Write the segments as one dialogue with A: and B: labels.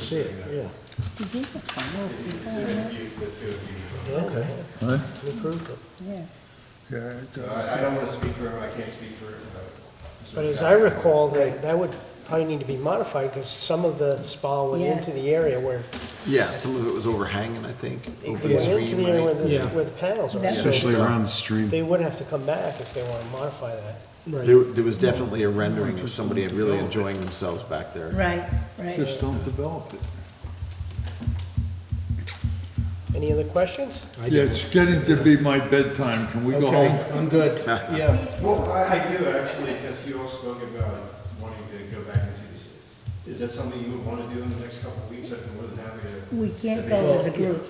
A: see it, yeah. Okay,
B: Huh?
A: we approved it.
B: Yeah,
C: So I, I don't wanna speak for him, I can't speak for him, but.
A: But as I recall, that, that would probably need to be modified, because some of the spa went
D: Yeah.
A: into the area where,
E: Yeah, some of it was overhanging, I think,
A: it
E: over
A: went
E: the
A: into
E: stream,
A: the area where
E: right?
A: the,
F: Yeah.
A: where the panels are.
D: That's
A: So
B: especially
E: so-
B: around the stream.
A: They would have to come back if they want to modify that.
F: Right.
E: There, there was definitely a rendering of somebody really enjoying themselves back there.
D: Right, right.
B: Just don't develop it.
A: Any other questions?
B: Yeah, it's getting to be my bedtime. Can we go home?
F: I'm good. Yeah.
C: Well, I, I do actually, because you all spoke about wanting to go back and see this. Is that something you would wanna do in the next couple of weeks? I'd be more than happy to.
D: We can't go as a group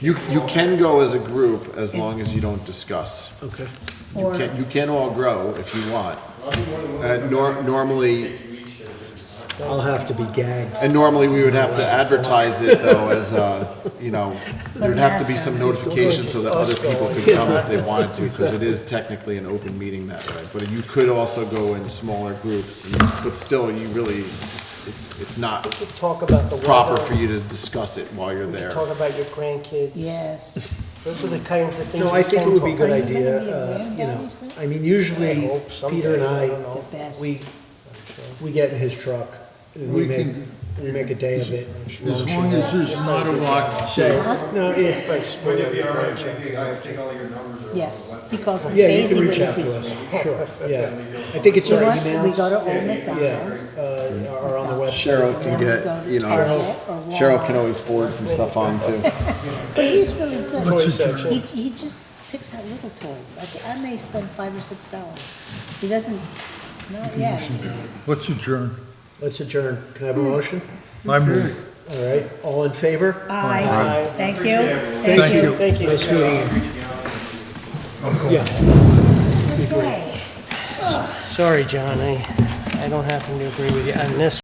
E: You, you can go as a group as long as you don't discuss.
F: Okay.
E: You
D: or,
E: can, you can all grow if you want.
C: I'll be more than willing
E: Uh,
C: to
E: nor, normally,
C: take you each at a different time.
F: I'll have to be gagged.
E: and normally we would have to advertise it though as, uh, you know, there'd have to be some notification so that other people could come if they wanted to, because it is technically an open meeting that way. But you could also go in smaller groups, and, but still, you really, it's, it's not
A: We could talk about the weather.
E: proper for you to discuss it while you're
A: We could
E: there.
A: talk about your grandkids.
D: yes.
A: Those are the kinds of things
F: No,
A: we
F: I think
A: can
F: it would be a
A: talk
F: good
A: about.
D: Are you gonna
F: idea,
D: be
F: uh,
D: around,
F: you know.
D: obviously?
F: I mean,
A: I
F: usually,
A: hope someday,
F: Peter and
A: don't
F: I,
A: know.
D: The best.
F: we,
A: I'm
F: we get in his truck, and we
B: We
F: make,
B: can-
F: we make a day of it.
B: As long as there's not a lock, say,
F: No, yeah,
A: sure. Right, split
C: Would
A: up
C: it be
A: your
C: all right
A: grandchild.
C: if maybe I take all your numbers or?
D: Yes,
C: what?
D: because we're
F: yeah, you
D: crazy
F: can reach out
D: busy.
F: to us, sure, yeah. I think it's our
D: Once we go
F: emails,
D: to Old McDonald's,
F: yeah, uh, are on the website.
E: Cheryl can
D: Then we go
E: get,
D: to
E: you know,
D: Target or
E: Cheryl can
D: Walmart.
E: always forward some stuff on too.
D: but he's really
A: Toy
D: good.
A: section.
D: He, he just picks out little toys. I, ca- I may spend five or six dollars. He doesn't, not yet.
B: what's adjourned?
F: Let's adjourn. Can I have a motion?
B: I move.
F: All right, all in favor?
D: Aye, thank you.
B: Thank you.
F: Thank you. Nice meeting you. Yeah,
D: Okay.
A: Sorry, John, I, I don't happen to agree with you on this